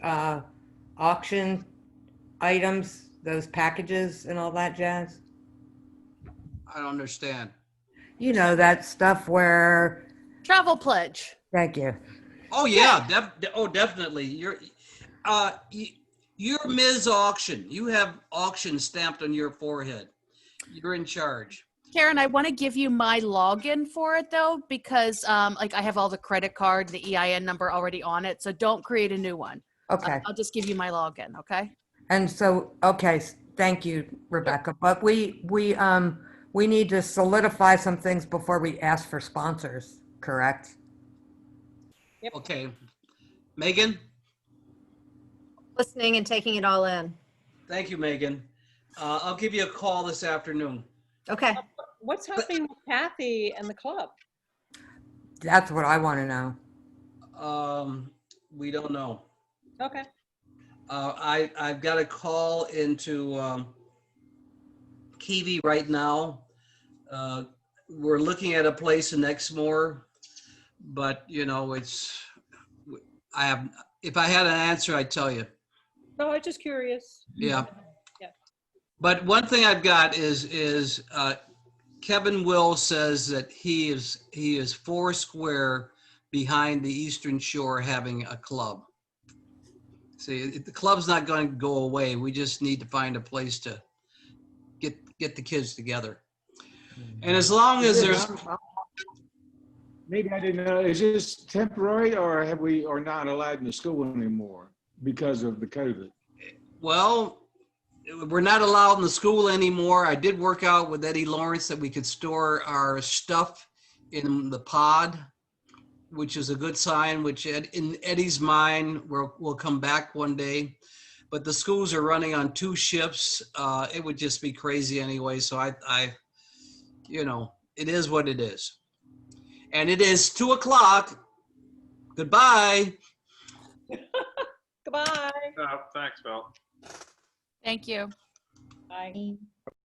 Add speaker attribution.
Speaker 1: uh, auction items, those packages and all that jazz?
Speaker 2: I don't understand.
Speaker 1: You know, that stuff where,
Speaker 3: Travel pledge.
Speaker 1: thank you.
Speaker 2: Oh yeah, def- de- oh definitely. You're, uh, y- you're Ms. Auction. You have auction stamped on your forehead. You're in charge.
Speaker 3: Karen, I want to give you my login for it though, because um, like I have all the credit card, the EIN number already on it. So don't create a new one.
Speaker 1: Okay.
Speaker 3: I'll just give you my login. Okay.
Speaker 1: And so, okay, s- thank you, Rebecca, but we, we, um, we need to solidify some things before we ask for sponsors, correct?
Speaker 2: Okay, Megan.
Speaker 4: listening and taking it all in.
Speaker 2: Thank you, Megan. Uh, I'll give you a call this afternoon.
Speaker 4: Okay.
Speaker 5: What's happening with Kathy and the club?
Speaker 1: That's what I want to know.
Speaker 2: Um, we don't know.
Speaker 5: Okay.
Speaker 2: Uh, I, I've got a call into, um, Kiwi right now. Uh, we're looking at a place in Exmoor, but you know, it's, I have, if I had an answer, I'd tell you.
Speaker 5: No, I'm just curious.
Speaker 2: Yeah.
Speaker 5: Yeah.
Speaker 2: But one thing I've got is, is, uh, Kevin Will says that he is, he is four square behind the Eastern Shore having a club. See, it- the club's not going to go away. We just need to find a place to get, get the kids together. And as long as there's,
Speaker 6: Maybe I didn't know, is this temporary or have we, or not allowed in the school anymore because of the COVID?
Speaker 2: well, we're not allowed in the school anymore. I did work out with Eddie Lawrence that we could store our stuff in the pod, which is a good sign, which Ed- in Eddie's mind, we'll, we'll come back one day. But the schools are running on two shifts. Uh, it would just be crazy anyway. So I, I, you know, it is what it is. And it is two o'clock. Goodbye.
Speaker 5: Goodbye.
Speaker 7: Uh, Thanks, Bill.
Speaker 3: Thank you.
Speaker 5: Bye.
Speaker 4: Good